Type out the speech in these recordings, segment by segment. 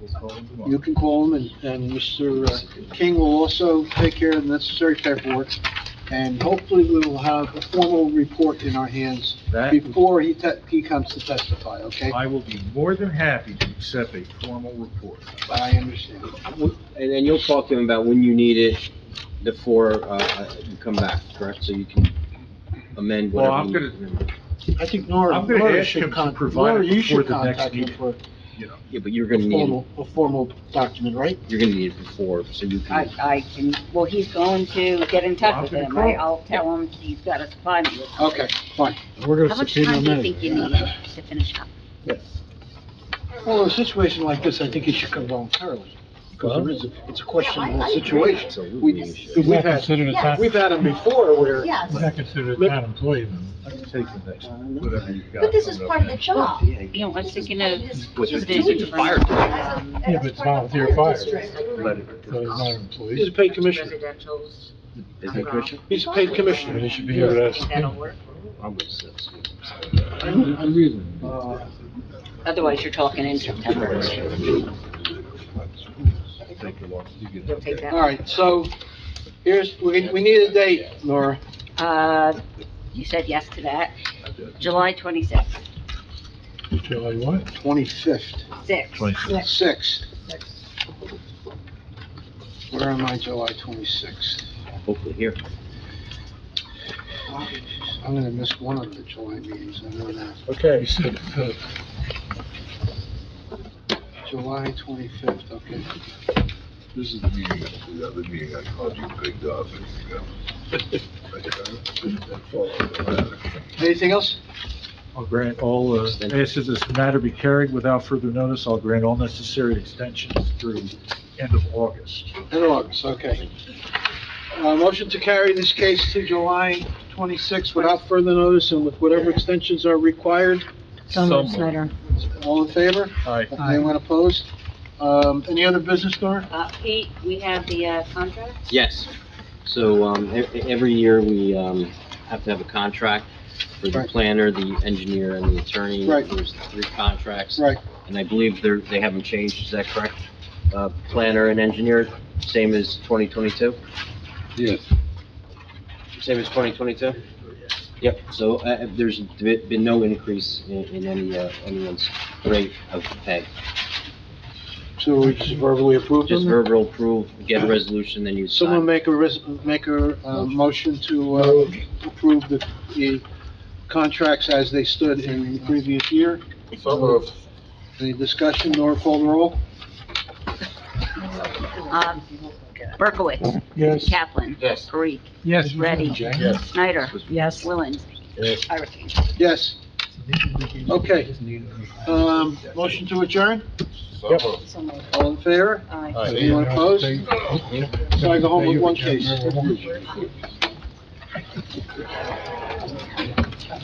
Just call him tomorrow. You can call him, and, and Mr. King will also take care of the necessary paperwork, and hopefully we will have a formal report in our hands That, before he te, he comes to testify, okay? I will be more than happy to accept a formal report. I understand. And then you'll talk to him about when you need it before, uh, you come back, correct? So you can amend Well, I'm whatever. you- gonna, I think Nora, I'm gonna Nora ask him should to con, provide Nora, it you before should the next contact him meeting. for a you know, Yeah, but you're gonna need, it- formal, a formal document, right? you're gonna need it before, so you I, can, I can, well, he's going to get in touch with him, right? I'll tell him he's got a supply. me. Okay, fine. We're gonna subpoena him anyway. to finish up? Well, in a situation like this, I think he should come voluntarily, because there is, a- it's a questionable Yeah, I- I agree. situation. so We- we really should. He's We've not had, considered a town, we've had him before where Yes, he's not considered a town employee then. I can take the next, whatever you've got. but this is coming up part of the next. job. You know, I was thinking of. But it's subdivision just for- fire. um, Yeah, but it's volunteer fire, so Let it- he's not an he's a employee. paid commissioner. Residential's. Um, Is it Christian? He's a paid But he commissioner. should be able to ask. That'll work. I'm with six. Uh, Otherwise, you're talking in September. Take the walk, you get You'll take it. All that. right, so here's, we, we need a date, Nora. Uh, you said yes to that. July twenty-sixth, July what? Twenty-fifth, six. sixth. Where am I, July twenty-sixth? Hopefully here. Oh, I'm gonna miss one of the July meetings, I know that. You said, uh, July twenty-fifth, okay. This is the meeting, the other meeting I called you big dog. Anything else? I'll grant all, uh, as if this matter be carried without further notice, I'll grant all necessary extensions through end of August. In August, okay. Uh, motion to carry this case to July twenty-sixth without further notice and with whatever extensions are required. Someone. All in favor? Aye. Anyone opposed? Um, any other business, Nora? Uh, Pete, we have the, uh, contract? Yes. So, um, e- e- every year we, um, have to have a contract for the Right. planner, the engineer, and the attorney. Right. There's three contracts. Right, and I believe they're, they haven't changed, is that correct? Uh, planner and engineer, same as 2022? Yes. Same as 2022? Yep, so, uh, uh, there's be- been no increase in, in any, uh, anyone's rate of pay. so we just verbally approve them? Just verbal approval, get a resolution, then you Someone sign. make a res, make a, uh, motion to, uh, approve the, the contracts as they stood in the previous year. Any discussion, Nora call the roll? Um, Berkowitz, yes. Kaplan. Yes. Parikh, Yes. Ready. Yes. Snyder. Yes. Willens. Yes. I retain. Yes. Okay. Um, motion to adjourn? Yep. So moved. All in favor? Aye. Anyone opposed? So I go home with one case.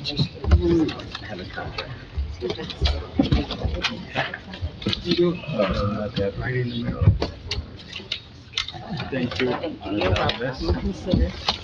Have a contract. Thank you. You're welcome. Consider.